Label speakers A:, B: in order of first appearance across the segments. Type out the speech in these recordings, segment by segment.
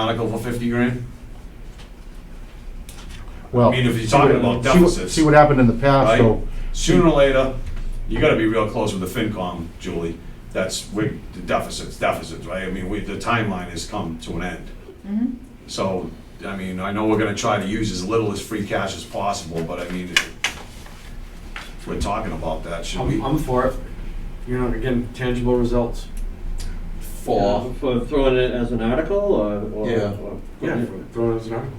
A: article for fifty grand?
B: Well,
A: I mean, if you're
B: see what-
A: talking about
B: see what-
A: deficits.
B: See what happened in the past,
A: Right.
B: so,
A: Sooner or later, you gotta be real close with the FinCom, Julie. That's, we, the deficits, deficits, right? I mean, we, the timeline has come to an end.
C: Mhm.
A: So, I mean, I know we're gonna try to use as little as free cash as possible, but I mean, if we're talking about that, should we?
D: I'm, I'm for it. You know, again, tangible results.
A: For.
E: For throwing it as an article or? or-
A: Yeah.
E: or-
D: Yeah, throw it as an article.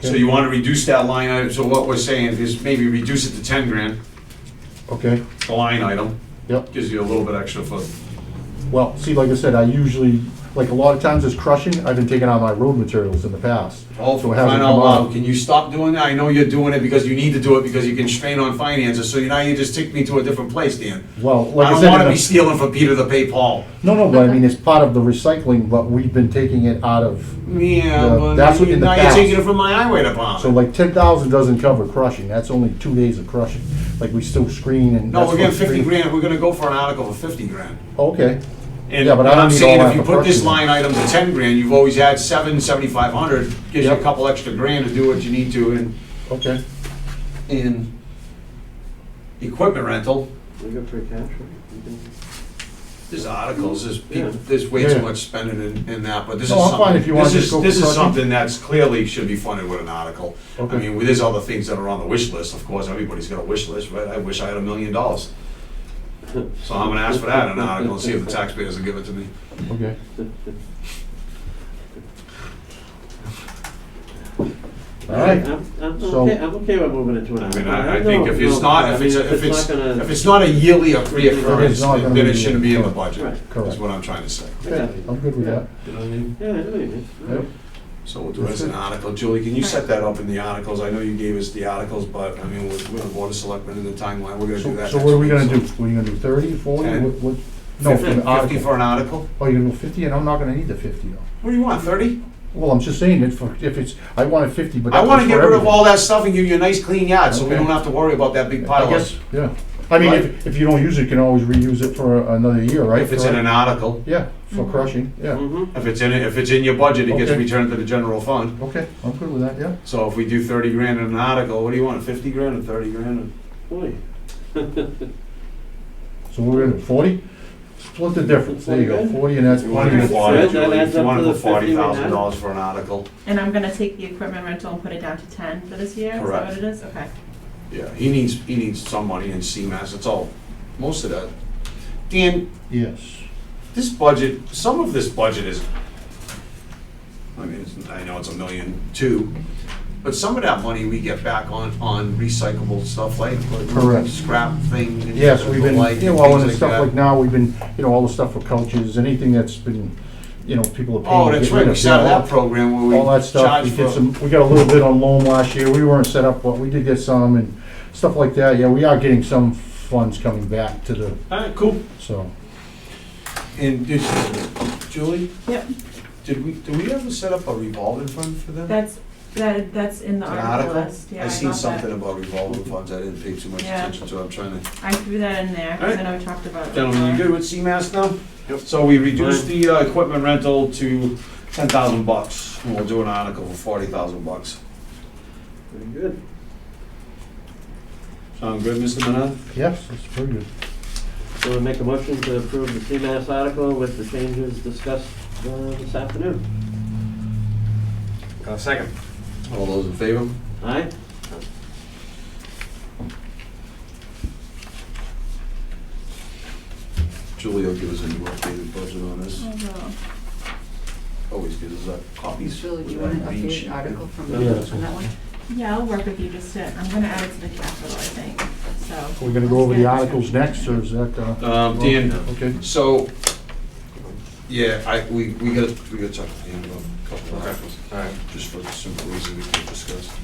A: So you wanna reduce that line item, so what we're saying is maybe reduce it to ten grand,
B: okay,
A: the line item.
B: Yep.
A: Gives you a little bit extra for,
B: well, see, like I said, I usually, like, a lot of times it's crushing, I've been taking out my road materials in the past.
A: oh,
B: So
A: for
B: it hasn't
A: crying
B: come
A: out
B: out.
A: loud, can you stop doing that? I know you're doing it because you need to do it, because you constrain on finances, so now you just take me to a different place, Dan.
B: Well, like
A: I
B: I
A: don't
B: said. in
A: wanna
B: the-
A: be stealing from Peter to pay Paul.
B: No, no, but I mean, it's part of the recycling, but we've been taking it out of,
A: Yeah,
B: Yeah,
A: but
B: that's what in the
A: now you're
B: past-
A: taking it from my highway
B: so
A: department.
B: like ten thousand doesn't cover crushing, that's only two days of crushing. Like, we still screen and.
A: No,
B: that's
A: we're getting
B: what
A: fifty
B: screen-
A: grand, we're gonna go for an article for fifty grand.
B: Okay,
A: And
B: Yeah, but I
A: what
B: don't
A: I'm
B: need
A: saying,
B: all
A: if
B: that
A: you
B: for
A: put this
B: personal.
A: line item to ten grand, you've always had seven, seventy-five hundred, gives you a
B: Yep.
A: couple extra grand to do what you need to in,
B: okay,
A: in equipment rental.
E: We got free cash, right? We can-
A: There's articles, there's,
E: Yeah.
A: people- there's way
B: Yeah.
A: too much spending in, in that, but this is
B: No, I'm fine
A: something,
B: if you wanna
A: this
B: just
A: is,
B: go
A: this is
B: crushing.
A: something that's clearly should be funded with an article. I
B: Okay.
A: mean, there's other things that are on the wish list, of course, everybody's got a wish list, right? I wish I had a million dollars. So I'm gonna ask for that in an article and see if the taxpayers will give it to me.
B: okay. All right,
E: I'm, I'm
B: So-
E: okay, I'm okay with moving it to an
A: I
E: article.
A: mean, I, I
E: don't
A: think if
E: know,
A: it's not, if
E: I mean,
A: it's, if it's,
E: gonna-
A: if it's not a yearly
B: It's not
A: reoccurrence,
B: gonna
A: then
B: be-
A: it shouldn't be in the
E: Right.
A: budget, is
B: Correct.
A: what I'm trying to say.
E: Exactly.
B: I'm good with that.
D: You know what I mean?
E: Yeah, I know what you mean.
B: Yeah.
A: So we'll do it as an article. Julie, can you set that up in the articles? I know you gave us the articles, but I mean, we're, we're the board of selectmen in the timeline, we're gonna do
B: So
A: that
B: so what are we gonna
A: next
B: do?
A: week,
B: What Are you gonna do thirty, forty,
A: Ten.
B: what, what? No, for
A: Fifty-
B: the
A: Fifty
B: article.
A: for an article?
B: Oh, you're gonna go fifty, and I'm not gonna need the fifty though.
A: What do you want, thirty?
B: Well, I'm just saying, if, if it's, I wanted fifty, but
A: I
B: that was
A: wanna
B: for
A: get rid of
B: everything.
A: all that stuff and give you a nice clean yard, so we
B: Okay.
A: don't have to worry about that big pile
B: I guess,
A: of,
B: yeah. I mean,
A: Right.
B: if, if you don't use it, you can always reuse it for another year, right?
A: if it's in an article.
B: Yeah, for crushing, yeah.
E: Mhm.
A: If it's in, it- if it's in your budget, it gets
B: Okay.
A: returned to the general fund.
B: Okay, I'm good with that, yeah.
A: So if we do thirty grand in an article, what do you want, fifty grand or thirty grand? or-
E: Boy.
B: So we're gonna, forty? Split the difference, there you go, forty and that's
A: You want to
B: plenty.
A: do
B: of-
A: forty,
E: That
A: Julie,
E: adds
A: if you
E: up
A: want
E: to
A: to
E: the
A: put
E: 50
A: forty
E: we
A: thousand
E: had.
A: dollars for an article,
C: And I'm gonna take the equipment rental and put it down to ten for this year, is that
A: Correct.
C: what it is? Okay.
A: yeah, he needs, he needs some money in CMAS, that's all, most of that. Dan,
B: Yes.
A: this budget, some of this budget is, I mean, it's- I know it's a million two, but some of that money we get back on, on recyclable stuff like
B: Correct.
A: scrap things. and
B: Yes, we've been,
A: like,
B: yeah, well, and
A: things
B: stuff
A: that.
B: like now, we've been, you know, all the stuff for coaches, anything that's been, you know, people are paying.
A: Oh,
B: to
A: that's
B: get
A: right,
B: rid
A: we
B: of,
A: started
B: you know,
A: that program where we
B: All that stuff,
A: charge
B: we
A: for.
B: did some, we got a little bit on loan last year, we weren't set up, but we did get some and stuff like that, yeah, we are getting some funds coming back to the,
A: All right, cool.
B: so.
A: And did, Julie,
C: Yep,
A: did we, did we ever set up a revolving fund for them?
C: that's, that, that's in the
A: An
C: article
A: article?
C: list, yeah,
A: I
C: I
A: seen
C: got
A: something
C: that.
A: about revolving funds, I didn't pay too much
C: Yeah.
A: attention to, it. I'm trying to.
C: I threw that in there,
A: All right.
C: because I know we talked about it.
A: Gentlemen, you
C: before.
A: good with CMAS now? Yep. So we reduced the uh, equipment rental to ten thousand bucks, and we'll do an article for forty thousand bucks.
E: Very good.
A: Sound good, Mr. Manette?
B: Yes, that's pretty good.
E: So we make a motion to approve the CMAS article with the changes discussed uh, this afternoon.
D: Uh, second.
A: All those in favor?
E: Aye?
A: Julie will give us a new updated budget on this,
F: Mm.
C: Although-
A: always gives us uh, copies.
F: Julie, do you
A: with
F: want an
A: that green sheet.
F: updated article from
B: Yeah, that's
F: from that one?
C: Yeah, I'll work with you just to, I'm gonna add it to the capital, I think, so.
B: We're gonna go over the articles next, or is that, uh?
A: Um, Dan,
B: Okay,
A: so, yeah, I, we, we gotta, we gotta talk to Dan about a couple of articles.
D: Alright.
A: just for the simple reason we can discuss.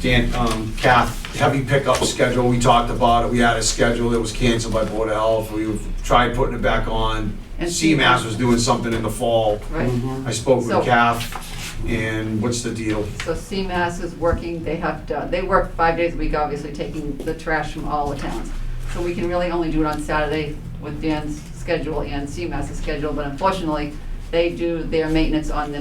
A: Dan, um, Kath, heavy pickup schedule, we talked about it, we had a schedule that was canceled by Board of Health, we tried putting it back on.
F: And
A: CMAS was doing something in the fall,
F: Right,
B: Mm-hmm.
A: I spoke
F: So-
A: with Kath, and what's the deal?
F: so CMAS is working, they have, to- they work five days a week, obviously, taking the trash from all the towns. So we can really only do it on Saturday with Dan's schedule and CMAS's schedule, but unfortunately, they do their maintenance on the